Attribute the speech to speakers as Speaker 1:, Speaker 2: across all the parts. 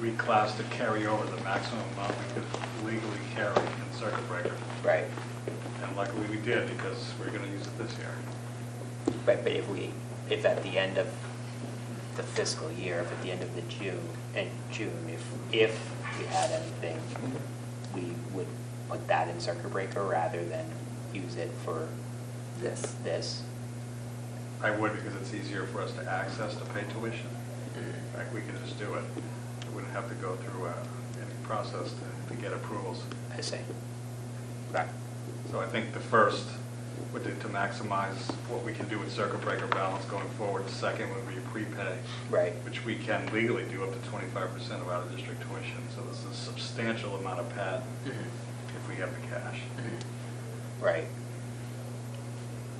Speaker 1: reclassed to carry over the maximum amount we could legally carry in circuit breaker.
Speaker 2: Right,
Speaker 1: And luckily we did, because we're going to use it this year.
Speaker 2: but, but if we, if at the end of the fiscal year, if at the end of the June, in June, if, if we had anything, we would put that in circuit breaker rather than use it for
Speaker 3: this.
Speaker 2: this.
Speaker 1: I would, because it's easier for us to access to pay tuition. In fact, we can just do it. We wouldn't have to go through uh, any process to to get approvals.
Speaker 2: I see. Right.
Speaker 1: So I think the first would be to maximize what we can do with circuit breaker balance going forward. The Second would be prepay.
Speaker 2: Right.
Speaker 1: Which we can legally do up to 25% of out-of-district tuition. So this is a substantial amount of pad
Speaker 4: Mm-hmm.
Speaker 1: if we have the cash.
Speaker 2: Right.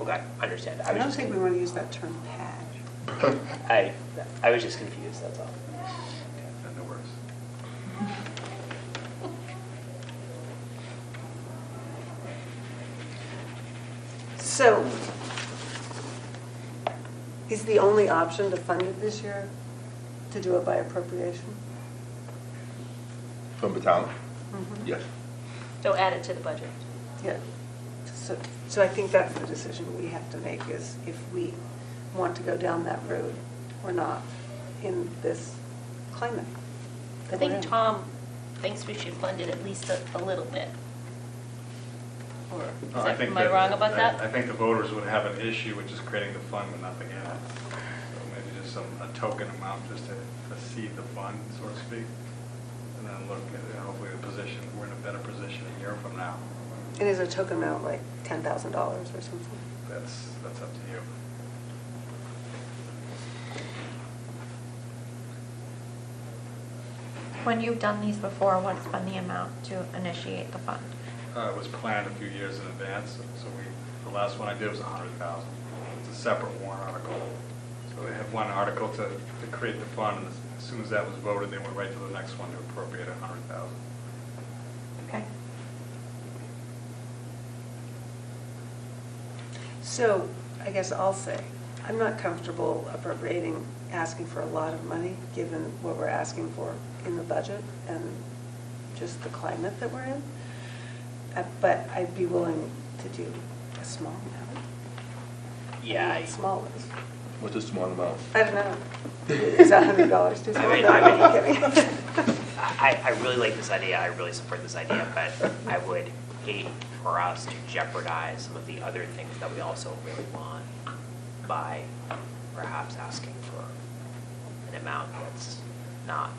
Speaker 2: Okay, understand.
Speaker 3: I
Speaker 2: was
Speaker 3: don't
Speaker 2: just
Speaker 3: think we
Speaker 2: con-
Speaker 3: want to use that term pad.
Speaker 2: I, I was just confused, that's all.
Speaker 1: And no worries.
Speaker 3: So is the only option to fund it this year, to do it by appropriation?
Speaker 5: From the town?
Speaker 4: Mm-hmm.
Speaker 3: Mhm.
Speaker 5: Yes.
Speaker 4: So add it to the budget.
Speaker 3: Yeah. So, so I think that's the decision we have to make is if we want to go down that road or not in this climate.
Speaker 4: I
Speaker 3: that we're
Speaker 4: think
Speaker 3: in.
Speaker 4: Tom thinks we should fund it at least a, a little bit. Or, is
Speaker 1: No, Uh, I
Speaker 4: that-
Speaker 1: think
Speaker 4: am I wrong about
Speaker 1: I
Speaker 4: that?
Speaker 1: think the voters would have an issue with just creating the fund with nothing in it. So maybe just some, a token amount just to, to see the fund, so to speak. And then look at, hopefully the position, we're in a better position a year from now.
Speaker 3: And is a token amount like $10,000 or something?
Speaker 1: That's, that's up to you.
Speaker 6: When you've done these before, what's been the amount to initiate the fund?
Speaker 1: Uh, It was planned a few years in advance, so we, the last one I did was a hundred thousand. It's a separate warrant article. So they have one article to, to create the fund, and as soon as that was voted, they went right to the next one to appropriate a hundred thousand.
Speaker 6: Okay.
Speaker 3: So I guess I'll say, I'm not comfortable appropriating, asking for a lot of money, given what we're asking for in the budget and just the climate that we're in. Uh, But I'd be willing to do a small amount.
Speaker 2: Yeah,
Speaker 3: I mean,
Speaker 2: I-
Speaker 3: Small is,
Speaker 5: What's a small amount?
Speaker 3: I don't know. Is that hundred dollars too small?
Speaker 2: I mean,
Speaker 3: No,
Speaker 2: I mean-
Speaker 3: I'm kidding.
Speaker 2: I, I I really like this idea, I really support this idea, but I would hate for us to jeopardize some of the other things that we also really want by perhaps asking for an amount that's not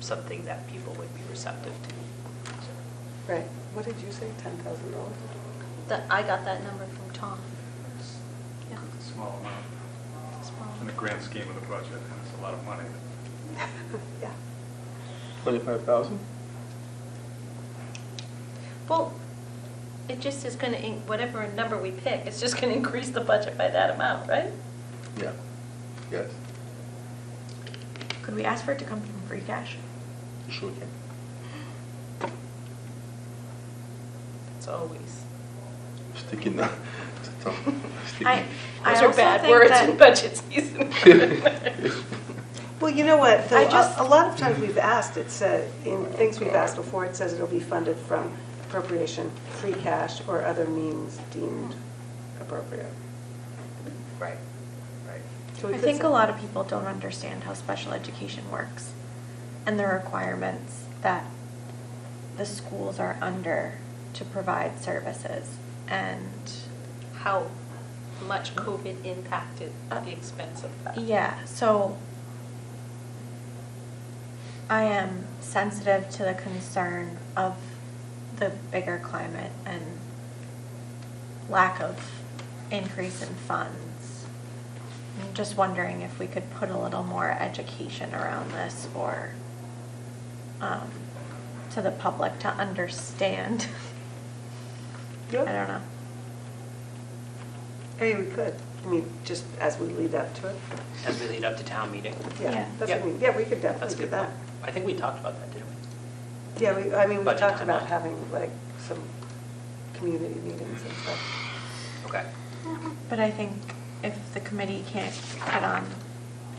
Speaker 2: something that people would be receptive to.
Speaker 3: Right, what did you say, ten thousand dollars?
Speaker 4: That- I got that number from Tom.
Speaker 1: It's
Speaker 4: Yeah.
Speaker 1: it's a small amount.
Speaker 4: It's wrong.
Speaker 1: in the grand scheme of the budget, and it's a lot of money.
Speaker 3: Yeah.
Speaker 5: Twenty-five thousand?
Speaker 4: Well, it just is gonna, in- whatever number we pick, it's just gonna increase the budget by that amount, right?
Speaker 5: Yeah. Yes.
Speaker 6: Could we ask for it to come from free cash?
Speaker 5: You Sure can.
Speaker 4: It's always.
Speaker 5: Sticky now. It's a tongue.
Speaker 6: I- I
Speaker 4: Those are
Speaker 6: also
Speaker 4: bad
Speaker 6: think
Speaker 4: words
Speaker 6: that-
Speaker 4: in budget season.
Speaker 3: Well, you know what, though,
Speaker 6: I
Speaker 3: a
Speaker 6: just-
Speaker 3: a lot of times we've asked, it said, in things we've asked before, it says it'll be funded from appropriation, free cash, or other means deemed appropriate.
Speaker 2: Right, right.
Speaker 3: Should we
Speaker 6: I
Speaker 3: put
Speaker 6: think a
Speaker 3: some-
Speaker 6: lot of people don't understand how special education works and the requirements that the schools are under to provide services. And,
Speaker 4: How much COVID impacted the expense of that.
Speaker 6: yeah, so I am sensitive to the concern of the bigger climate and lack of increase in funds. I'm just wondering if we could put a little more education around this for, um, to the public to understand. I
Speaker 3: Yeah.
Speaker 6: don't know.
Speaker 3: I mean, we could, I mean, just as we lead up to it.
Speaker 2: As we lead up to town meeting,
Speaker 3: Yeah,
Speaker 6: Yeah.
Speaker 3: that's what I mean, yeah, we could
Speaker 2: that's a
Speaker 3: definitely do
Speaker 2: good
Speaker 3: that.
Speaker 2: point. I think we talked about that, didn't we?
Speaker 3: Yeah, we, I mean, we
Speaker 2: Budget
Speaker 3: talked about
Speaker 2: timeline.
Speaker 3: having like some community meetings and stuff.
Speaker 2: Okay.
Speaker 6: But I think if the committee can't get on